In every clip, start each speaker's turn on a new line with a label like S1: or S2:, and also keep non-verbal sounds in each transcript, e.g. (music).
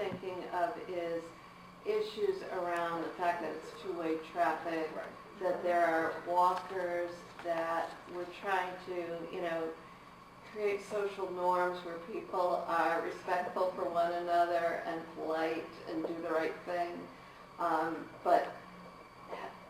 S1: thinking of is issues around the fact that it's two-way traffic,
S2: Right.
S1: that there are walkers, that we're trying to, you know, create social norms where people are respectful for one another and polite and do the right thing. Um, but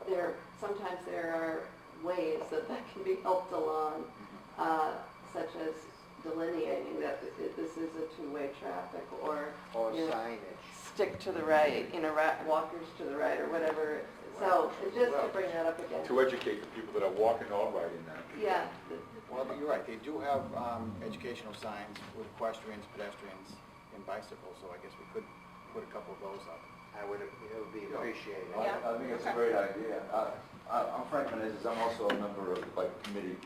S1: there, sometimes there are ways that that can be helped along,
S2: Mm-hmm.
S1: uh, such as delineating that it- this is a two-way traffic or
S2: Or
S1: Yeah.
S2: signage.
S1: stick to the right, you know, ra- walkers to the right or whatever. So it's just to bring that up again.
S3: to educate the people that are walking or riding that.
S1: Yeah,
S2: Well, but you're right, they do have um, educational signs with equestrians, pedestrians, and bicycles, so I guess we could put a couple of those up. I would, it would be appreciated.
S4: I I think it's a great idea. I- I- I'm Frank Menezes, I'm also a member of the bike committee,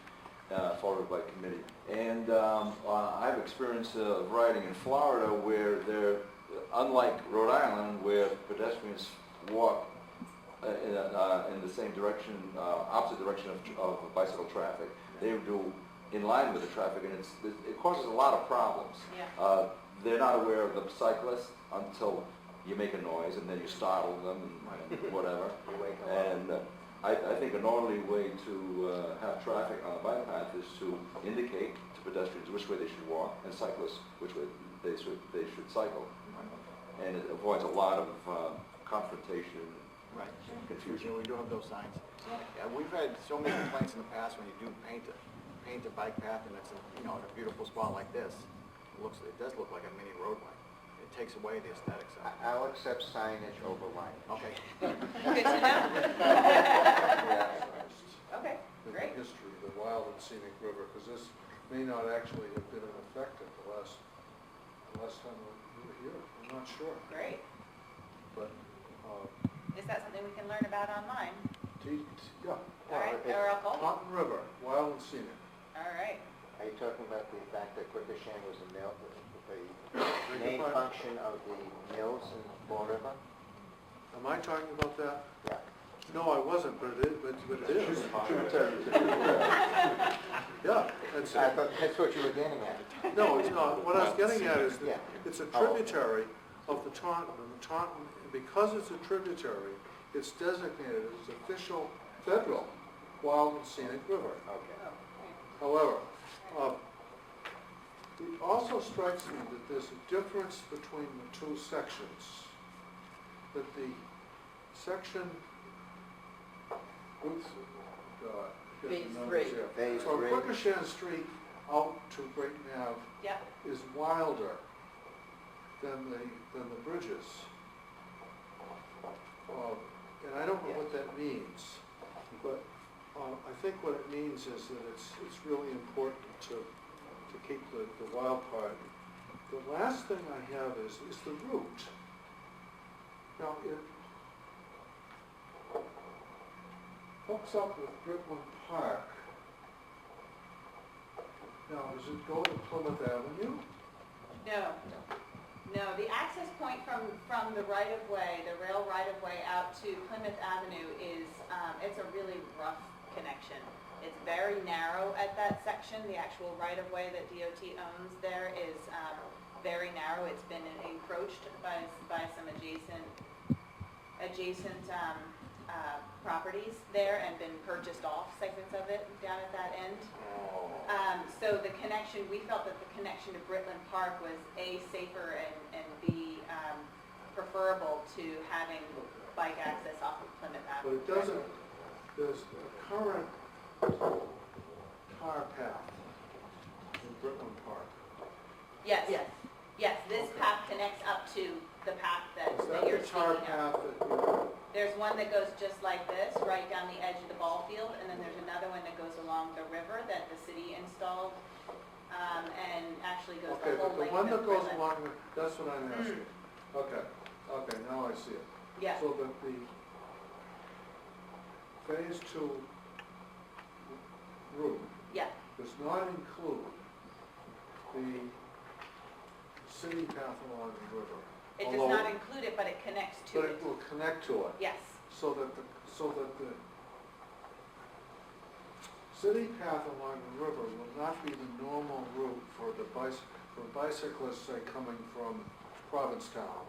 S4: uh, Florida Bike Committee. And um, uh, I've experienced uh, riding in Florida where there, unlike Rhode Island, where pedestrians walk uh, in a- uh, in the same direction, uh, opposite direction of tr- of bicycle traffic, they do in line with the traffic, and it's, it causes a lot of problems.
S1: (laughs)
S5: (laughs)
S1: Yeah.
S4: Uh, They're not aware of the cyclist until you make a noise, and then you startle them and- and whatever.
S2: You wake 'em up.
S4: And uh, I, I think an orderly way to uh, have traffic on a bike path is to indicate to pedestrians which way they should walk, and cyclists which way they should, they should cycle. And it avoids a lot of uh, confrontation
S2: Right.
S4: and
S2: Confusion,
S4: confusion.
S2: we do have those signs. Yeah, we've had so many complaints in the past when you do paint a, paint a bike path and it's, a you know, in a beautiful spot like this, it looks, it does look like a mini roadway. It takes away the aesthetics of it.
S6: I'll accept signage over lighting.
S2: Okay.
S1: okay,
S7: in the
S1: great.
S7: history of the wild and scenic river, because this may not actually have been in effect at the last, the last time we were here, I'm not sure.
S5: Great.
S7: But, uh,
S5: Is that something we can learn about online?
S7: t- t- yeah,
S5: All right,
S2: it-
S5: Oracle?
S7: Taunton River, wild and scenic.
S5: All right.
S6: Are you talking about the fact that Quikasham was a mill, the
S7: Beg
S6: main
S7: your pardon?
S6: function of the mills in Fall River?
S7: Am I talking about that?
S6: Yeah.
S7: No, I wasn't, but it, but but
S6: (laughs)
S7: it is. (laughs) Yeah, that's
S6: I
S7: it.
S6: thought that's what you were getting at.
S7: No, it's not. What I was getting at is
S6: Yeah.
S7: that it's a
S6: Oh.
S7: tributary of the Taunton. And the Taunton, because it's a tributary, it's designated as official federal wild and scenic river.
S6: Okay.
S7: However, uh, it also strikes me that there's a difference between the two sections. That the section, oops, God, here's
S1: Phase
S7: the numbers
S1: three.
S7: here.
S6: Phase
S7: From
S6: three.
S7: Quikasham Street out to Great Nav
S1: Yeah,
S7: is wilder than the, than the bridges. Um, And I don't know what that means, but um, I think what it means is that it's, it's really important to, to keep the, the wild part. The last thing I have is, is the route. Now, it hooks up with Britland Park. Now, does it go to Plymouth Avenue?
S5: No. No, the access point from, from the right-of-way, the rail right-of-way out to Plymouth Avenue is, um, it's a really rough connection. It's very narrow at that section. The actual right-of-way that DOT owns there is, um, very narrow. It's been encroached by, by some adjacent adjacent um, uh, properties there and been purchased off segments of it down at that end.
S6: Oh.
S5: Um, So the connection, we felt that the connection to Britland Park was A, safer and and B, um, preferable to having bike access off of Plymouth
S7: But
S5: Avenue.
S7: it doesn't, there's a current car path in Britland Park.
S5: Yes,
S1: yes.
S5: yes, this path connects up to the path that
S7: Is
S5: that
S7: that
S5: you're
S7: the tar
S5: speaking of.
S7: path that you're,
S5: There's one that goes just like this, right down the edge of the ball field, and then there's another one that goes along the river that the city installed um, and actually goes
S7: okay,
S5: the
S7: but
S5: whole
S7: the
S5: length
S7: one
S5: of
S7: that goes
S5: Britland.
S7: along, the- that's what I'm asking. Okay, okay, now I see it.
S5: Yeah,
S7: So that the phase two route
S5: yeah,
S7: does not include the city path along the river.
S5: it does
S7: although-
S5: not include it, but it connects to
S7: But
S5: it,
S7: it will connect to it.
S5: yes,
S7: so that the, so that the city path along the river will not be the normal route for the bicy, for bicyclists, say, coming from Provincetown